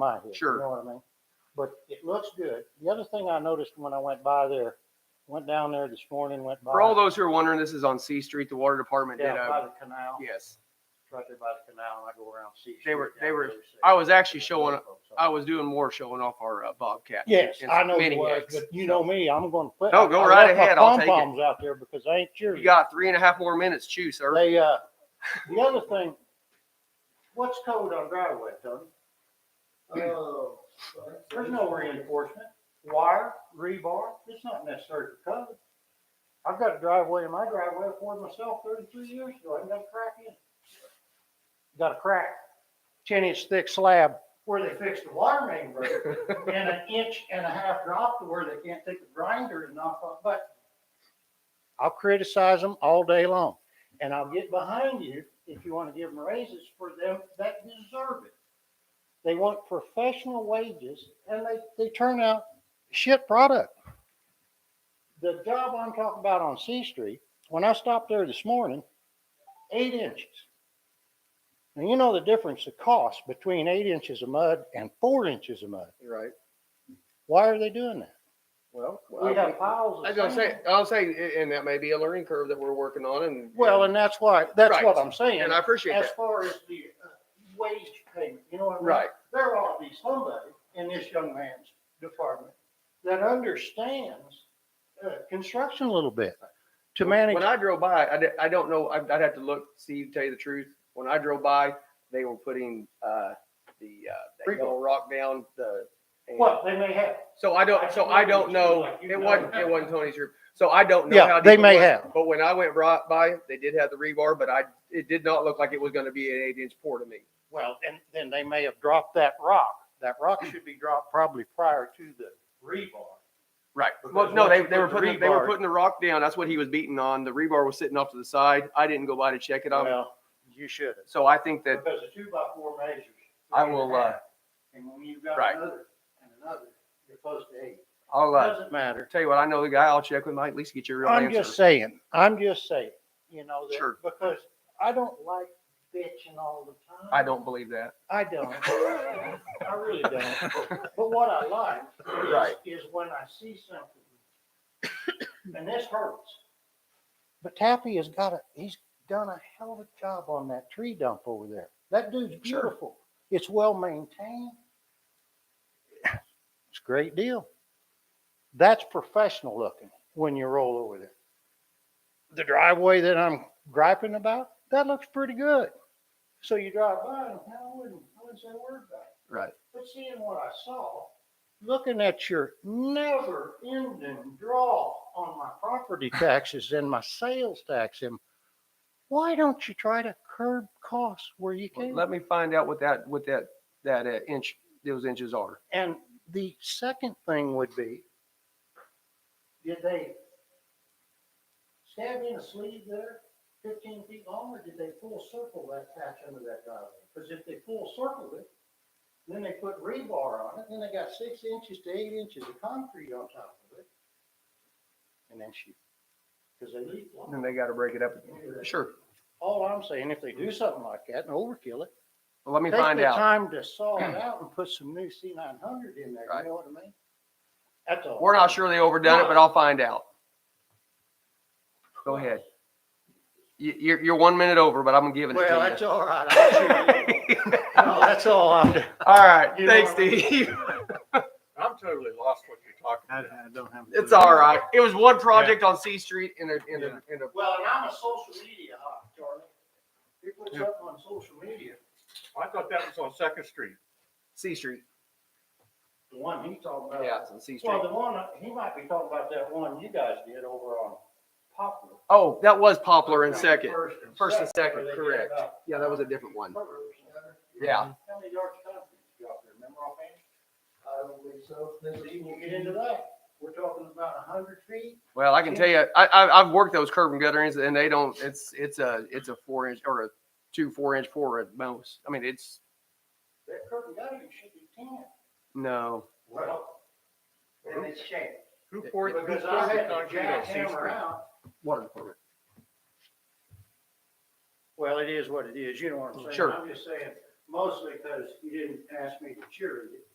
my head. Sure. You know what I mean? But it looks good. The other thing I noticed when I went by there, went down there this morning, went by. For all those who are wondering, this is on C Street. The water department did Uh, uh, Yeah, by a, the canal, yes. right there by the canal, and I go around C. They were- Street they down were- there, so- I was actually showing, I was doing more showing off our uh, Bobcat. Yes, and I know it Mini was, Hicks. but you know me, I'm gonna put. No, go I right left my ahead, I'll take it. Pom-poms out there because I ain't sure. You got three and a half more minutes. Chew, sir. They, uh, the other thing, what's code on driveway, Tony? Oh, There's no reinforcement, wire, rebar, it's not necessary for code. I've got a driveway in my driveway for myself thirty-three years ago, I haven't got a crack in it. Got a crack, ten inch thick slab where they fixed the water main break and an inch and a half drop to where they can't take a grinder and knock off, but I'll criticize them all day long. And I'll get behind you if you want to give them raises for them that deserve it. They want professional wages and they, they turn out shit product. The job I'm talking about on C Street, when I stopped there this morning, eight inches. And you know the difference, the cost between eight inches of mud and four inches of mud. Right. Why are they doing that? Well, We have piles of I was gonna say, sand. I'll say, and that may be a learning curve that we're working on and. Well, and that's why, that's Right. what I'm saying. And I appreciate as that. far as the uh, wage payment, you know what I mean? Right. There ought to be somebody in this young man's department that understands, uh, construction a little bit to manage. When I drove by, I, di- I don't know, I'd, I'd have to look, see, to tell you the truth. When I drove by, they were putting, uh, the, uh, that Freeway. yellow rock down the. and- What they may have. So I don't, so I don't know, it wasn't, it wasn't Tony's roof. So I don't know. Yeah, how deep they it may was, have. But when I went right by, they did have the rebar, but I, it did not look like it was gonna be an eight inch pour to me. Well, and then they may have dropped that rock. That rock should be dropped probably prior to the rebar. Right. Well, Because no, once they, you they were put the putting, they were rebar- putting the rock down. That's what he was beating on. The rebar was sitting off to the side. I didn't go by to check it out. Well, you should have. So I think that, Because the two by four measures. I will, uh, And when you've got right. another and another, you're close to eight. I'll, uh, Doesn't matter. tell you what, I know the guy. I'll check with him. I at least get your real I'm answer. just saying, I'm just saying, you know, that, Sure. because I don't like bitching all the time. I don't believe that. I don't. I really don't. But what I like is- Right. is when I see something, and this hurts. But Tappy has got a, he's done a hell of a job on that tree dump over there. That dude's Sure. beautiful. It's well maintained. It's a great deal. That's professional looking when you roll over there. The driveway that I'm griping about, that looks pretty good. So you drive by and I wouldn't, I wouldn't say a word about it. Right. But seeing what I saw, looking at your never ending draw on my property taxes and my sales tax, and why don't you try to curb costs where you Well, can? Let me find out what that, what that, that uh, inch, those inches are. And the second thing would be, did they stab in a sleeve there fifteen feet long, or did they full circle that patch under that driveway? Because if they full circled it, then they put rebar on it, then they got six inches to eight inches of concrete on top of it. And then shoot, because they leak. And Then they got to break it up. Sure. All I'm saying, if they do something like that and overkill it, Well, let me Take find the out. Time to saw it out and put some new C nine hundred in there, Right. you know what I mean? That's all. We're not sure they overdone it, but I'll find out. Go ahead. You, you're, you're one minute over, but I'm giving it Well, that's to all right. I'm sure you- you. No, that's all I'm, doing. All right. You Thanks, know what I mean? Steve. I'm totally lost what you're talking I, I about. don't have. It's all right. It was one project on C Street in a, in Yeah. a, in a, Well, and I'm a social media hawk, Charlie. You put Yeah. something on social media, I thought that was on Second Street. C Street. the one he's talking about. Yeah, it's on C Street. Well, the one, he might be talking about that one you guys did over on Poplar. Oh, that was Poplar in second. First and second, where they did correct. about Yeah, that was a different one. covers and other- Yeah. How many yards of concrete you got there, remember offhand? I don't believe so. Then we will get into that. We're talking about a hundred feet. Well, I can tell you, I, I, I've worked those curb and gutter ends and they don't, it's, it's a, it's a four inch or a two, four inch four at most. I mean, it's, That curb and gutter, you should be ten. no. Well. And it's shaped. Who poured, who poured Because I the had to concrete on C jackhammer Street? out. Water department. Well, it is what it is. You know what I'm saying? Sure. I'm just saying, mostly because you didn't ask me to cheer you.